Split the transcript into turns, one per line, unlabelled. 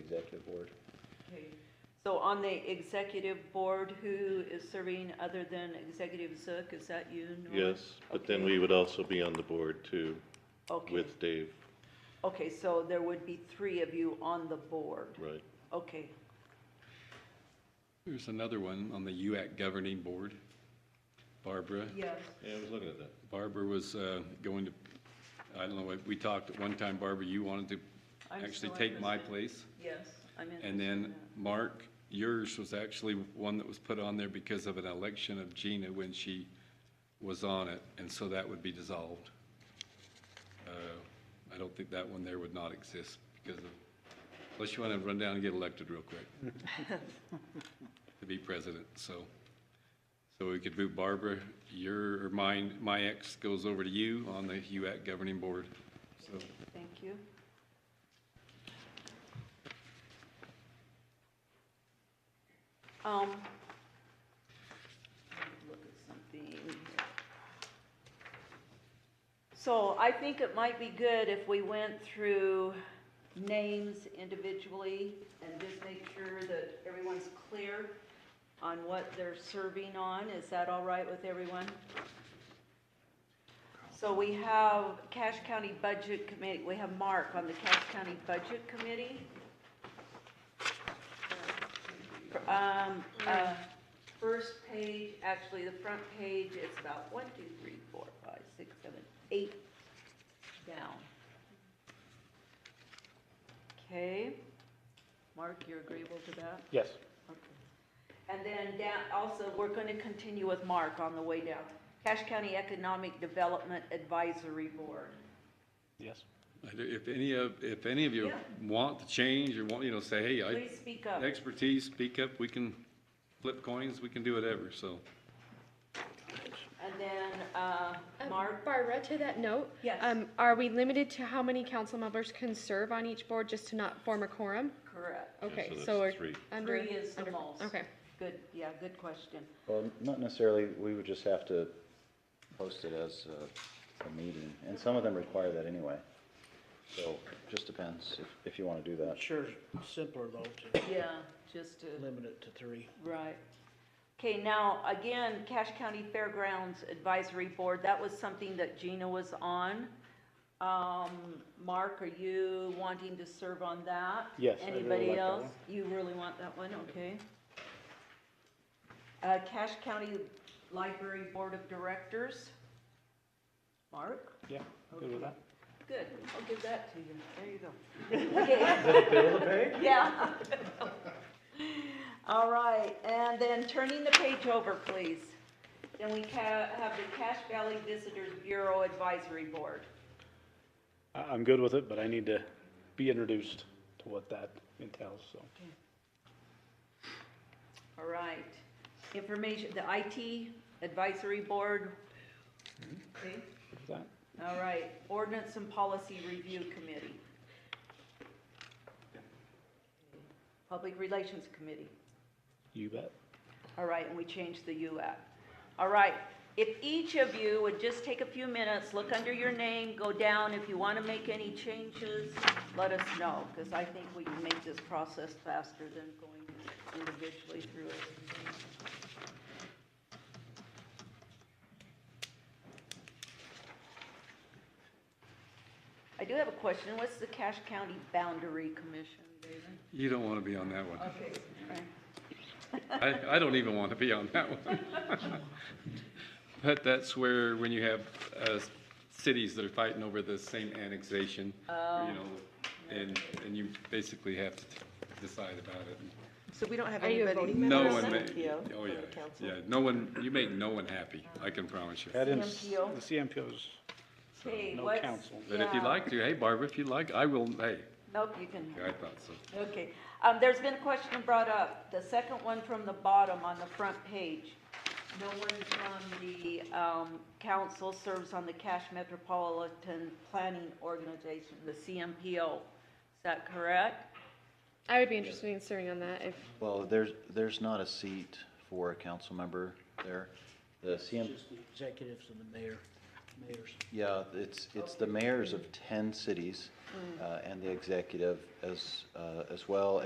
executive board.
Okay. So on the executive board, who is serving other than Executive Zook? Is that you, Nora?
Yes, but then
Okay.
we would also be on the board too,
Okay,
with Dave,
okay, so there would be three of you on the board.
right?
Okay,
There's another one on the UAC governing board. Barbara,
yes.
Yeah, I was looking at that.
Barbara was uh, going to, I don't know, we- we talked at one time, Barbara, you wanted to
I'm
actually
still
take my
interested.
place.
Yes, I'm interested.
And
in
then,
that.
Mark, yours was actually one that was put on there because of an election of Gina when she was on it, and so that would be dissolved. Uh, I don't think that one there would not exist because of, unless you want to run down and get elected real quick to be president, so. So we could move Barbara, your, or mine, my ex goes over to you on the UAC governing board, so.
Thank you. Um, let me look at something here. So I think it might be good if we went through names individually and just make sure that everyone's clear on what they're serving on. Is that all right with everyone? So we have Cache County Budget Committee, we have Mark on the Cache County Budget Committee. Um, uh, first page, actually, the front page, it's about one, two, three, four, five, six, seven, eight down. Okay, Mark, you're agreeable to that?
Yes.
And then down, also, we're going to continue with Mark on the way down. Cache County Economic Development Advisory Board.
Yes.
I do- If any of, if any of you
Yeah.
want to change or want, you know, say, hey, I,
Please speak up.
expertise, speak up, we can flip coins, we can do whatever, so.
And then, uh,
Um,
Mark,
Barbara, to that note.
Yes.
Um, are we limited to how many council members can serve on each board just to not form a quorum?
correct.
Okay,
so
so
that's
we're
three.
under.
Three is the
under-
most.
Okay,
Good, yeah, good question.
Well, not necessarily, we would just have to post it as a, a meeting, and some of them require that anyway. So, just depends if, if you wanna do that.
Sure, simpler though, to
Yeah, just to,
limit it to three.
right. Okay, now, again, Cache County Fairgrounds Advisory Board, that was something that Gina was on. Um, Mark, are you wanting to serve on that?
Yes, I really like
Anybody
that
else? You really want that one, okay. Uh, Cache County Library Board of Directors. Mark?
Yeah, good with that.
Good, I'll give that to you, there you go. Okay. Yeah. All right, and then turning the page over, please. Then we ca- have the Cache Valley Visitors Bureau Advisory Board.
I- I'm good with it, but I need to be introduced to what that entails, so.
All right. Information, the IT Advisory Board. Okay.
with that.
All right, Ordinance and Policy Review Committee. Public Relations Committee.
You bet.
All right, and we changed the U at. All right, if each of you would just take a few minutes, look under your name, go down, if you want to make any changes, let us know, because I think we can make this process faster than going individually through it. I do have a question, what's the Cache County Boundary Commission, David?
You don't want to be on that one.
Okay.
I, I don't even want to be on that one. But that's where, when you have uh, cities that are fighting over the same annexation, you
Oh.
know, and, and you basically have to decide about it.
So we don't have
Are you a
anybody.
voting
No
member
one,
on
ma-
that?
CMPO
oh, yeah,
for the council.
yeah, no one, you make no one happy, I can promise you.
That is,
CMPO?
the CMPO's
Okay,
no
what's-
council.
But if you
Yeah.
like to, hey, Barbara, if you like, I will, hey,
Nope, you can.
I thought so.
Okay, um, there's been a question brought up, the second one from the bottom on the front page. No one from the, um, council serves on the Cache Metropolitan Planning Organization, the CMPO. Is that correct?
I would be interested in serving on that if,
Well, there's, there's not a seat for a council member there. The CM,
Just the executives and the mayor. mayors.
Yeah, it's, it's Mm. the mayors of 10 cities uh, and the executive as, uh, as well